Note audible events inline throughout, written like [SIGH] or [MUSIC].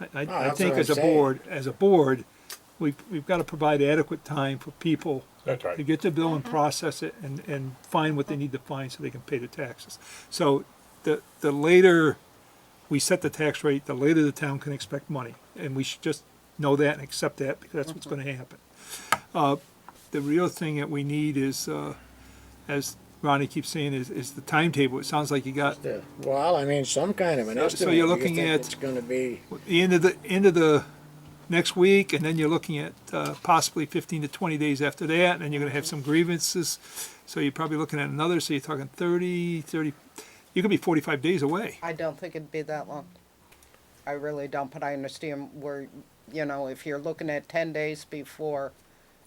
I- I, I that's think what as I'm a saying. board, as a board, we've, we've got to provide adequate time for people That's to right. get the bill and process it and, and find what they need to find so they can pay the taxes. So the, the later we set the tax rate, the later the town can expect money. And we should just know that and accept that because that's what's going to happen. Uh, The real thing that we need is, uh, as Ronnie keeps saying, is, is the timetable. It sounds like you got Yeah, Well, I mean, some kind of an So- estimate. so you're Do you looking think at- It's gonna be, the end of the, end of the next week, and then you're looking at uh, possibly 15 to 20 days after that, and then you're going to have some grievances. So you're probably looking at another, so you're talking 30, 30, you could be 45 days away. I don't think it'd be that long. I really don't, but I understand where, you know, if you're looking at ten days before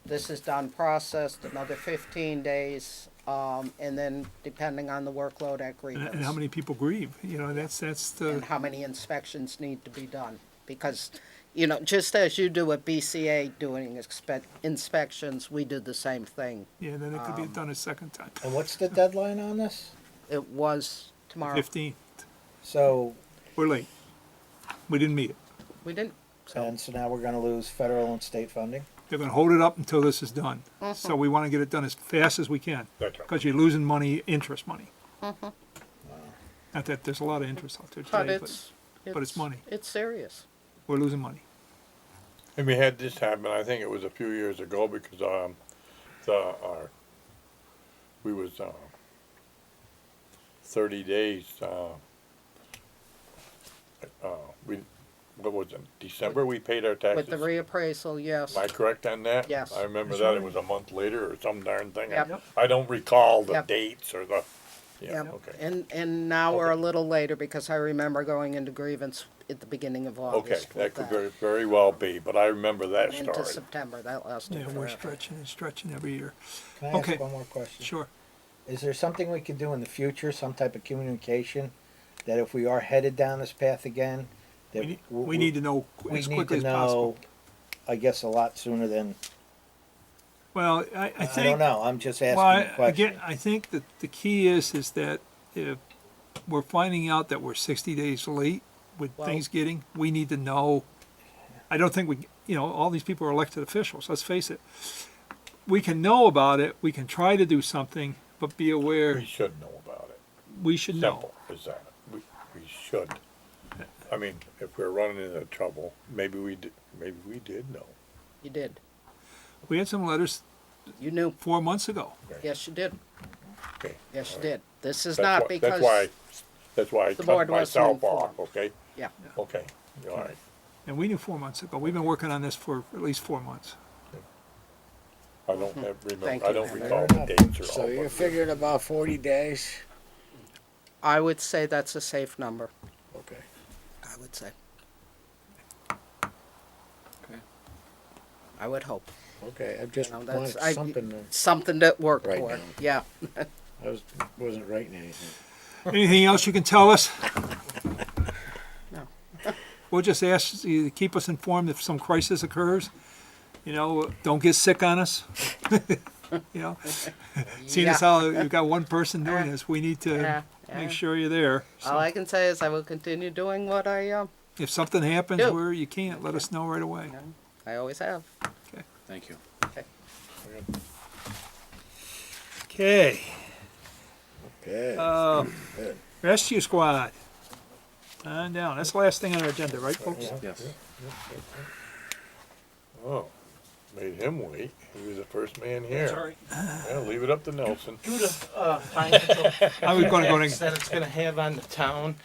this is done processed, another fifteen days, um, and then depending on the workload at And, grievance. and how many people grieve? You know, that's, that's and the, how many inspections need to be done, because, you know, just as you do at BCA doing expect, inspections, we do the same thing. yeah, then it could um, be done a second time. And what's the deadline on this? It was tomorrow, 15, So, we're late. We didn't meet it. we didn't, so, and so now we're gonna lose federal and state funding? They're going to hold it up until this is done. Mm-hmm. So we want to get it done as fast as we can. That's right. Because you're losing money, interest money. Not that there's a lot of interest out there today, Mm-hmm. but but. it's, but it's money. It's serious. we're losing money. And we had this happen, I think it was a few years ago because, um, the, our, we was, uh, thirty days, uh, uh, we, what was it, December we paid our taxes? With the reappraisal, yes. Am I correct on that? Yes. I remember that, it was a month later or some darn thing. I- Yep. I don't recall the Yep. dates or the, yeah, Yep. okay. And, and now we're a little later because I remember going into grievance at the beginning of Okay, August that with could that. very, very well be, but I remember that Into story. September, that lasted Yeah, we're forever. stretching and stretching every year. Can I Okay. ask one more question? Sure. Is there something we could do in the future, some type of communication, that if we are headed down this path again? that We need, w- we need to know qu- we as need quickly to as possible. know, I guess, a lot sooner than, Well, I, I I don't think, know, I'm just well, asking a I- question. again, I think that the key is, is that if we're finding out that we're sixty days late with Well- things getting, we need to know. I don't think we, you know, all these people are elected officials, let's face it. We can know about it, we can try to do something, but be aware, We should know about it. we should know. Simple as that. We, we should. I mean, if we're running into trouble, maybe we did, maybe we did know. You did. We had some letters You knew. four months ago. Yes, you did. Okay. Yes, you did. This is That's why- not because. That's why, that's why I the cut board wasn't myself off, informed. okay? Yeah, Okay, all right. And we knew four months ago. We've been working on this for at least four months. I don't have, Mm-hmm. Thank remember, I you, don't Henry. recall the dates or so all. you're but- figuring about forty days? I would say that's a safe number, Okay. I would say. I would hope, Okay, I just You know, wanted that's- I- something, to- something to work Right for, now. yeah. I was, wasn't writing anything. Anything else you can tell us? No. We'll just ask you to keep us informed if some crisis occurs. You know, don't get sick on us. [LAUGHS] You know, seeing as how Yeah. you've got one person doing Uh, this, we need uh, to uh. make sure you're there. All I can say is I will continue doing what I, um, If something happens Do. where you can't, let us know right away. I always have. Thank you. Okay, Okay. uh, Good. rescue squad. On down. That's the last thing on our agenda, right, folks? Yes. Oh, made him wait. He was the first man here. Sorry, Yeah, leave it up to Nelson. due to uh, financial I was gonna go impacts to, that it's gonna have on the town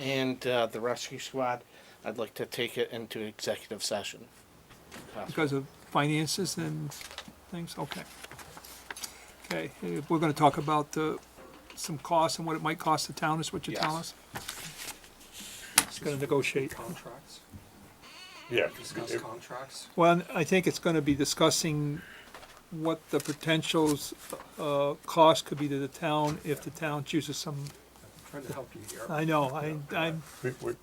and uh, the rescue squad, I'd like to take it into executive session. because of finances and things, okay. Okay, eh, we're gonna talk about uh some costs and what it might cost the town, is what you're telling us? Yes. It's gonna negotiate. Contracts, Yeah. discuss if- contracts. Well, I think it's gonna be discussing what the potentials, uh, cost could be to the town if the town chooses some, I'm trying to help you here. I know, I, I'm, we- we-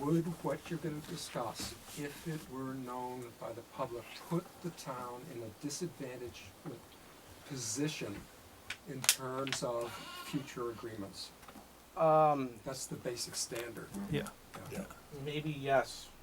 Would what you're gonna discuss, if it were known by the public, put the town in a disadvantaged position in terms of future agreements? Um, That's the basic standard. yeah. yeah. maybe yes,